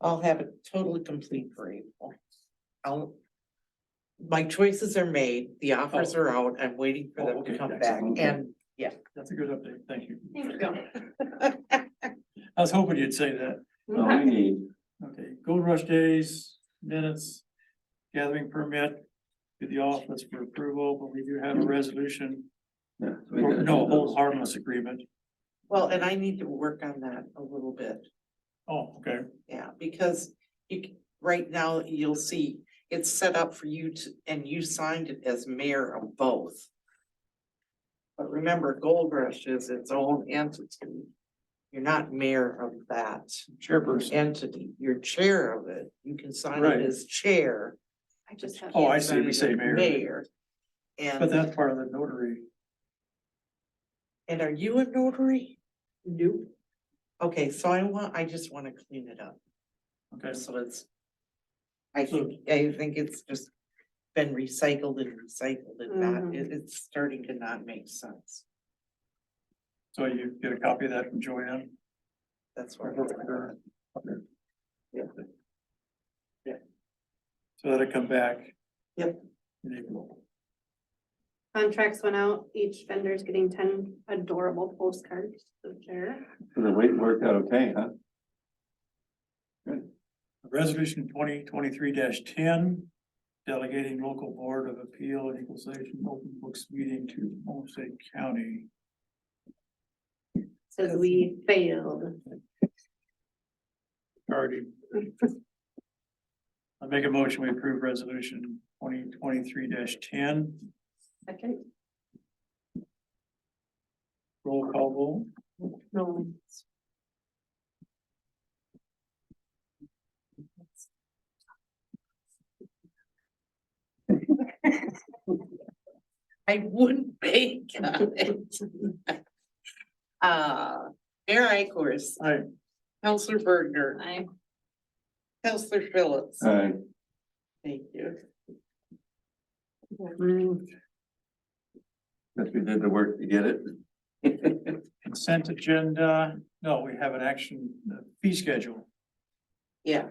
I'll have it totally complete for April. I'll. My choices are made, the offers are out, I'm waiting for Oh, them okay, to come back excellent. and, yeah. That's a good update, thank you. that's- I was hoping you'd say that. All we need, Okay, Gold Rush Days, minutes, gathering permit to the office for approval, but we do have a resolution. yeah. so we or gotta No, do hold those. harmless agreement. Well, and I need to work on that a little bit, Oh, okay, yeah, because you, c- right now, you'll see. It's set up for you to, and you signed it as mayor of both. But remember, Gold Rush is its own entity. You're not mayor of that. chairperson. entity, you're chair of it, you can sign Right. it as chair. I just have. Oh, I Can't see, sign we it say as mayor. But And, that's part of the notary. and are you a notary? Nope. Okay, so I want, I just wanna clean it up, Okay, so it's. I So- think, I think it's just been recycled and recycled and not, Mhm. it, it's starting to not make sense. so you get a copy of that from Joanne. That's where. it's at. Okay. Yeah. So that'll come back. Yep. in April. Contracts went out, each vendor's getting ten adorable postcards to share. So the wait worked out okay, huh? Resolution twenty twenty-three ten, delegating local board of appeal and equalization open books meeting to Homestead County. Says we failed. Already, I make a motion, we approve resolution twenty twenty-three ten, Second, roll call No. I wouldn't bank on it. Uh, Mayor Ikorst, vote. Aye. Counselor Bergner, I, Counselor Phillips. Alright, Thank you. Mm-hmm. guess we did the work to get it. consent agenda, no, we have an action uh, fee schedule. Yeah,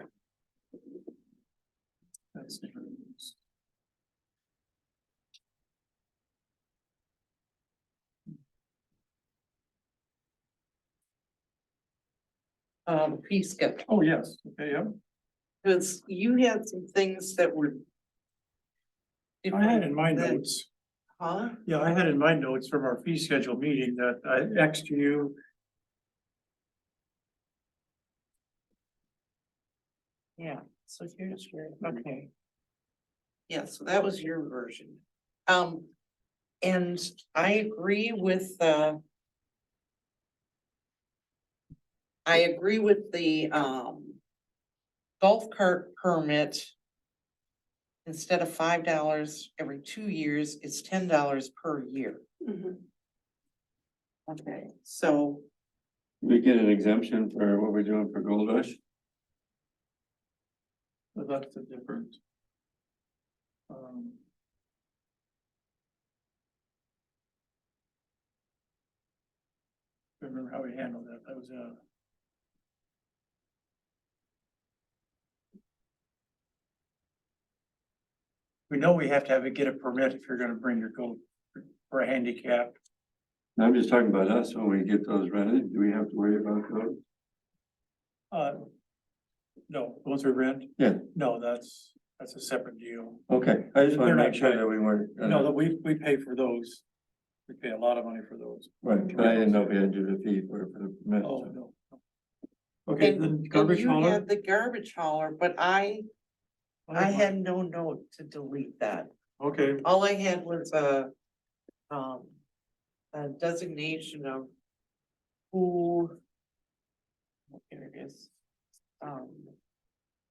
That's um, peace schedule. Oh, yes, okay, yep. Cause you had some things that were. I had in my different than- notes. Huh? Yeah, I had in my notes from our fee schedule meeting that I Xed you. Yeah, so here's your, okay. Yeah, so that was your version. Um, and I agree with, uh. I agree with the, um. Golf cart permit. Instead of five dollars every two years, it's ten dollars per year. mhm. Okay. So, We get an exemption for what we're doing for Gold Rush? So That's a different. um, don't Remember how we handled that, that was uh, a. We know we have to have a, get a permit if you're gonna bring your gold for a handicap. No, I'm just talking about us, when we get those rented, do we have to worry about those? Uh, No, the ones we rent? Yeah. No, that's, that's a separate deal. Okay, I just wanna They're not make sure tied. that we weren't. uh, No, that we, we pay for those. We pay a lot of money for those. Right, but I didn't know if we had to do the fee for, for the permit. Oh, so. no. Okay, and, then and garbage you hauler. had the garbage hauler, but I, I had no note to delete that. Okay, All I had was a, um, a designation of who. Here it is. Um,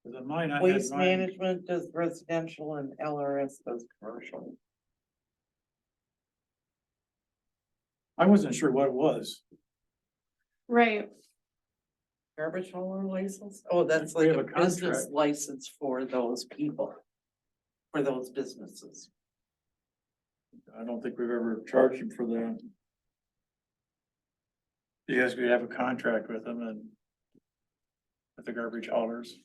the mine, I had waste mine, management does residential and LRS does commercial. I wasn't sure what it was. Right, Garbage hauler license? Oh, that's We like have a a business contract. license for those people. For those businesses. I don't think we've ever charged them for that. Because we have a contract with them and with the garbage haulers.